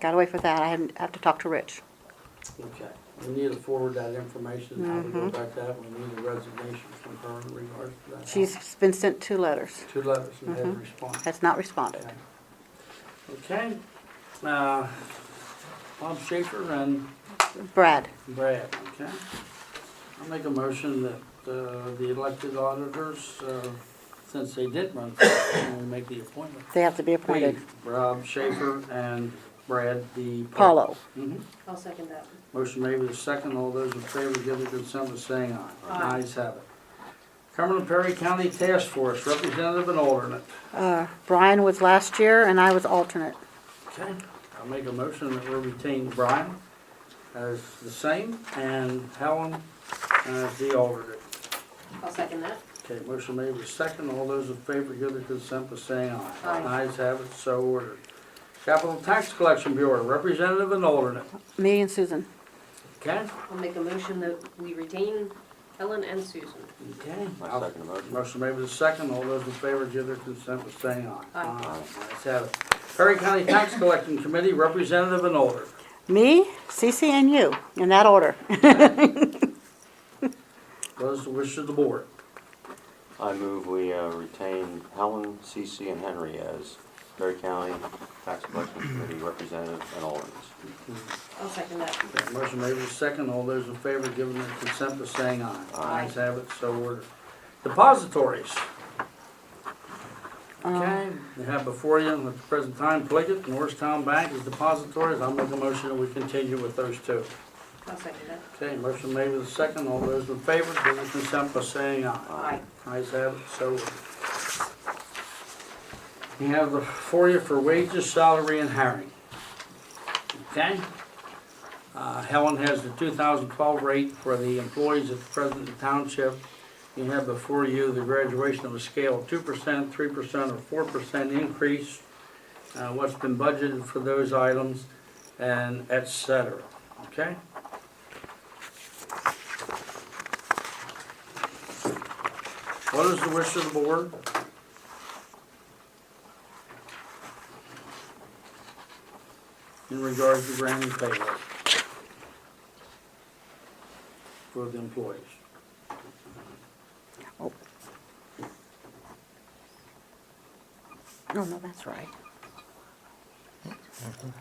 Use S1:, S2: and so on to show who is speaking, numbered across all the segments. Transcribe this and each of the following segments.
S1: Got away with that. I hadn't- have to talk to Rich.
S2: Okay, we need to forward that information, how we
S1: Mm-hmm.
S2: go about that, we need a resignation from her in regards to that.
S1: She's been sent two letters.
S2: Two letters, we had a
S1: Mhm.
S2: response.
S1: Has not responded.
S2: Okay, uh, Bob Schaefer and
S1: Brad,
S2: Brad, okay? I make a motion that, uh, the elected auditors, uh, since they did run, for it, and we make the appointment.
S1: they have to be appointed.
S2: Please, Rob Schaefer and Brad D.
S1: Paulo,
S2: Mhm.
S3: I'll second that.
S2: Motion made with a second. All those in favor give their consent by saying aye.
S3: Aye.
S2: Ayes have it. Cumberland Perry County Task Force, representative and alternate.
S1: uh, Brian was last year and I was alternate.
S2: Okay. I'll make a motion that we retain Brian as the same and Helen as the alternate.
S3: I'll second that.
S2: Okay, motion made with a second. All those in favor give their consent by saying aye.
S3: Aye.
S2: Ayes have it, so ordered. Capital Tax Collection Bureau, representative and alternate.
S1: Me and Susan.
S2: Okay?
S3: I'll make a motion that we retain Helen and Susan.
S2: Okay.
S4: I second the motion.
S2: Motion made with a second. All those in favor give their consent by saying aye.
S3: Aye.
S2: Ayes have it. Perry County Tax Collecting Committee Representative and Order.
S1: Me, Cece and you, in that order.
S2: What is the wish of the board?
S4: I move we uh, retain Helen, Cece, and Henry as Perry County Tax Collection Committee representative and alternates.
S3: I'll second that.
S2: Okay, Motion made with a second. All those in favor giving their consent by saying aye.
S3: Aye.
S2: Ayes have it, so ordered. Depositories.
S3: Um,
S2: Okay, you have before you at the present time Pliggett, Norristown Bank is depositories. I'll make a motion that we continue with those two.
S3: I'll second that.
S2: Okay, motion made with a second. All those in favor give their consent by saying aye.
S3: Aye.
S2: Ayes have it, so ordered. We have the for you for wages, salary, and hiring. Okay? Uh, Helen has the two thousand twelve rate for the employees of the President Township. You have before you the graduation of a scale of two percent, three percent, or four percent increase, uh, what's been budgeted for those items, and et cetera, okay? What is the wish of the board? In regards to granting pay raise for the employees.
S1: No, no, that's right. Never mind.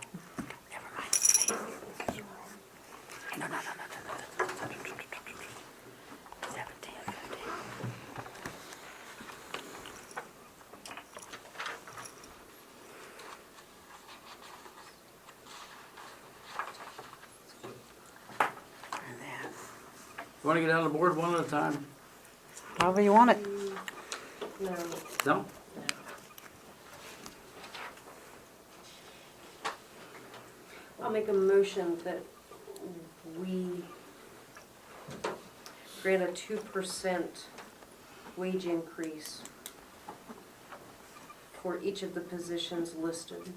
S1: No, no, no, no, no, no. Seventeen, fifteen. And then,
S2: You Want to get on the board one at a time?
S1: However you want it.
S3: No,
S2: No?
S3: I'll make a motion that we grant a two percent wage increase for each of the positions listed.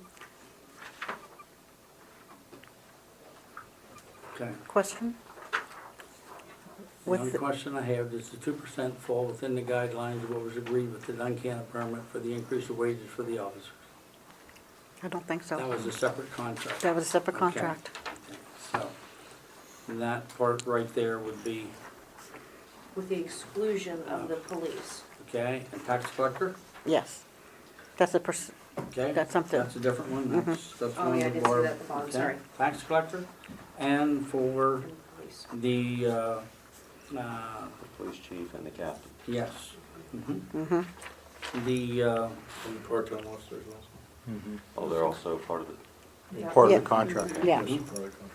S2: Okay.
S1: Question?
S2: The
S1: What's
S2: only
S1: the-
S2: question I have is the two percent fall within the guidelines of what was agreed with the Duncan permit for the increase of wages for the officers.
S1: I don't think
S2: That
S1: so.
S2: was a separate contract.
S1: That was a separate
S2: Okay.
S1: contract.
S2: So, and that part right there would be,
S3: With the exclusion of the police.
S2: okay, and tax collector?
S1: Yes. That's a pers-
S2: Okay,
S1: That's something.
S2: that's a different one, that's, that's
S3: Oh,
S2: one
S3: yeah, I
S2: of the
S3: did see
S2: bar.
S3: that at the bottom,
S2: okay.
S3: sorry.
S2: Tax collector, and for
S3: and police.
S2: the, uh, uh,
S4: The police chief and the captain.
S2: yes. mhm.
S1: Mm-hmm.
S2: The, uh,
S5: And the part-time officers also.
S4: Oh, they're also part of the,
S3: Yeah.
S5: Part
S1: Yeah.
S5: of the contract.
S1: Yeah.
S5: Yes, part of the contract.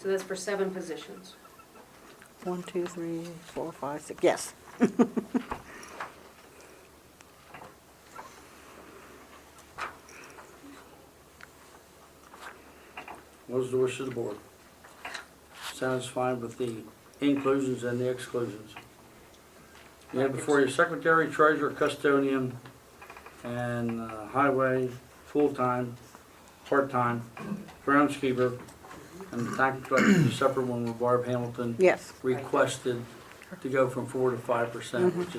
S3: So that's for seven positions.
S1: One, two, three, four, five, six, yes.
S2: what is the wish of the board? Satisfied with the inclusions and the exclusions? You have before you secretary, treasurer, custodian, and uh, highway, full-time, part-time, groundskeeper, and the tax collector, the separate one with Barb Hamilton.
S1: Yes.
S2: requested to go from four to five percent, which is